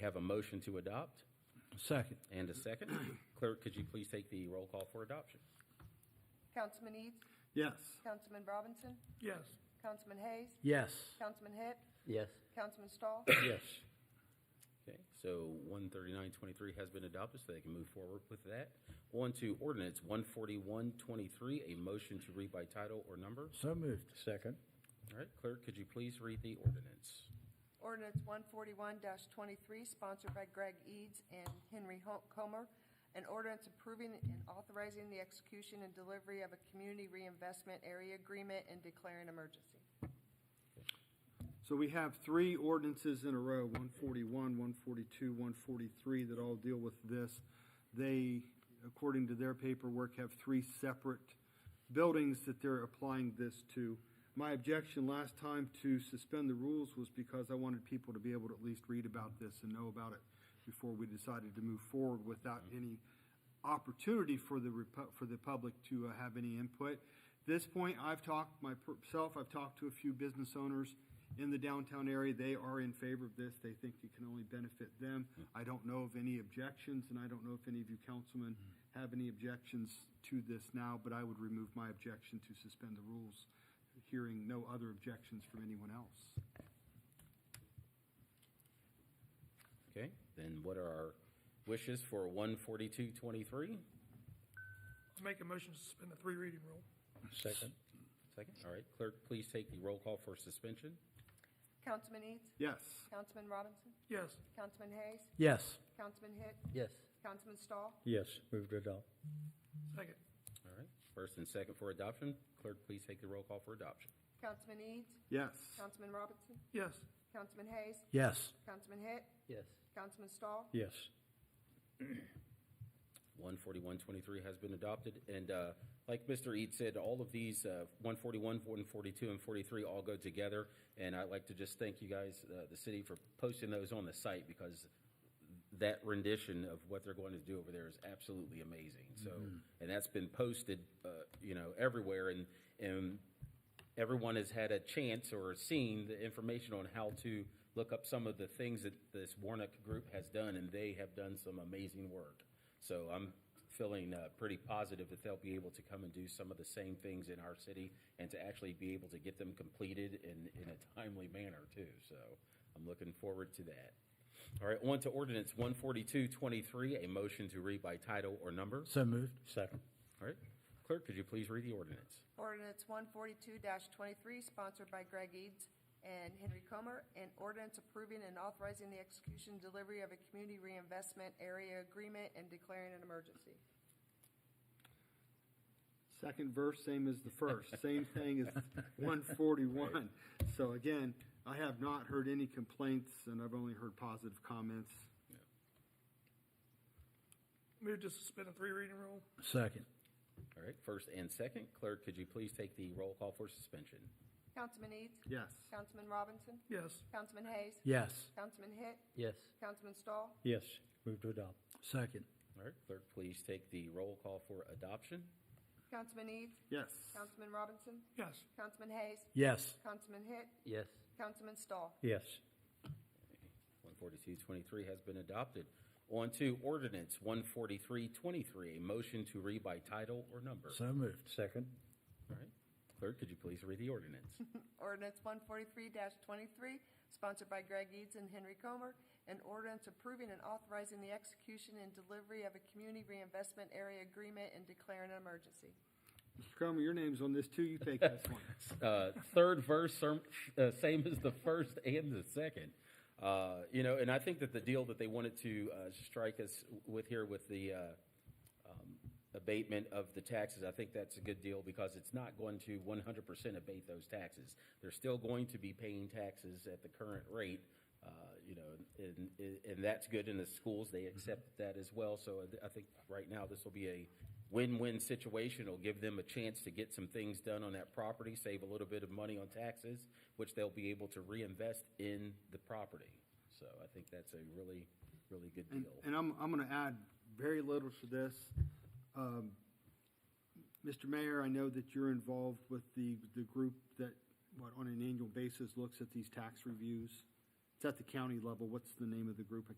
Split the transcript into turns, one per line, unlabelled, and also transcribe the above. have a motion to adopt
Second.
and a second. Clerk, could you please take the roll call for adoption?
Councilman Eads,
Yes.
Councilman Robinson,
Yes.
Councilman Hayes,
Yes.
Councilman Hitt,
Yes.
Councilman Stahl,
Yes.
Okay, so one thirty-nine twenty-three has been adopted, so they can move forward with that. On to ordinance one forty-one twenty-three, a motion to read by title or number.
So moved. Second.
All right, clerk, could you please read the ordinance?
Ordinance one forty-one twenty-three, sponsored by Greg Eads and Henry Ho- Comer. An ordinance approving and authorizing the execution and delivery of a community reinvestment area agreement and declaring emergency.
So we have three ordinances in a row, 141, 142, 143, that all deal with this. They, according to their paperwork, have three separate buildings that they're applying this to. My objection last time to suspend the rules was because I wanted people to be able to at least read about this and know about it before we decided to move forward without any opportunity for the, repu- for the public to uh, have any input. This point, I've talked myself, I've talked to a few business owners in the downtown area. They are in favor of this. They think it can only benefit them. I don't know of any objections, and I don't know if any of you councilmen have any objections to this now, but I would remove my objection to suspend the rules, hearing no other objections from anyone else.
Okay, then what are our wishes for one forty-two twenty-three?
Make a motion to suspend the three reading rule.
Second.
Second, all right, clerk, please take the roll call for suspension.
Councilman Eads,
Yes.
Councilman Robinson,
Yes,
Councilman Hayes,
Yes.
Councilman Hitt,
Yes.
Councilman Stahl,
Yes. Moved to adopt.
second.
All right, first and second for adoption. Clerk, please take the roll call for adoption.
Councilman Eads,
Yes.
Councilman Robinson,
Yes,
Councilman Hayes,
Yes.
Councilman Hitt,
Yes.
Councilman Stahl,
Yes.
One forty-one twenty-three has been adopted, and uh, like Mr. Eads said, all of these, uh, one forty-one, one forty-two, and forty-three all go together. And I'd like to just thank you guys, uh, the city, for posting those on the site, because that rendition of what they're going to do over there is absolutely amazing. So, and that's been posted, uh, you know, everywhere, and, and everyone has had a chance or seen the information on how to look up some of the things that this Warnock group has done, and they have done some amazing work. So I'm feeling uh, pretty positive that they'll be able to come and do some of the same things in our city and to actually be able to get them completed in, in a timely manner too. So I'm looking forward to that. All right, on to ordinance 142-23, a motion to read by title or number.
So moved. Second.
All right, clerk, could you please read the ordinance?
Ordinance one forty-two twenty-three, sponsored by Greg Eads and Henry Comer, an ordinance approving and authorizing the execution delivery of a community reinvestment area agreement and declaring an emergency.
Second verse, same as the first, same thing as one forty-one. So again, I have not heard any complaints, and I've only heard positive comments.
move to suspend the three reading rule.
Second.
All right, first and second. Clerk, could you please take the roll call for suspension?
Councilman Eads,
Yes.
Councilman Robinson,
Yes,
Councilman Hayes,
Yes.
Councilman Hitt,
Yes.
Councilman Stahl,
Yes. Moved to adopt. Second.
All right, clerk, please take the roll call for adoption.
Councilman Eads,
Yes.
Councilman Robinson,
yes,
Councilman Hayes,
Yes.
Councilman Hitt,
Yes.
Councilman Stahl.
Yes.
One forty-two twenty-three has been adopted. On to ordinance one forty-three twenty-three, a motion to read by title or number.
So moved. Second.
All right, clerk, could you please read the ordinance?
Ordinance one forty-three twenty-three, sponsored by Greg Eads and Henry Comer, an ordinance approving and authorizing the execution and delivery of a community reinvestment area agreement and declaring an emergency.
Mr. Cromer, your name's on this too. You take this one.
uh, third verse, serm- uh, same as the first and the second. Uh, you know, and I think that the deal that they wanted to uh, strike us with here with the uh, um, abatement of the taxes, I think that's a good deal because it's not going to 100% abate those taxes. They're still going to be paying taxes at the current rate. Uh, you know, and, and, and that's good in the schools. They accept that as well. So uh, I th- I think right now this will be a win-win situation. It'll give them a chance to get some things done on that property, save a little bit of money on taxes, which they'll be able to reinvest in the property. So I think that's a really, really good
And,
deal.
and I'm, I'm gonna add very little to this. Um, Mr. Mayor, I know that you're involved with the, the group that, what, on an annual basis looks at these tax reviews. It's at the county level. What's the name of the group? I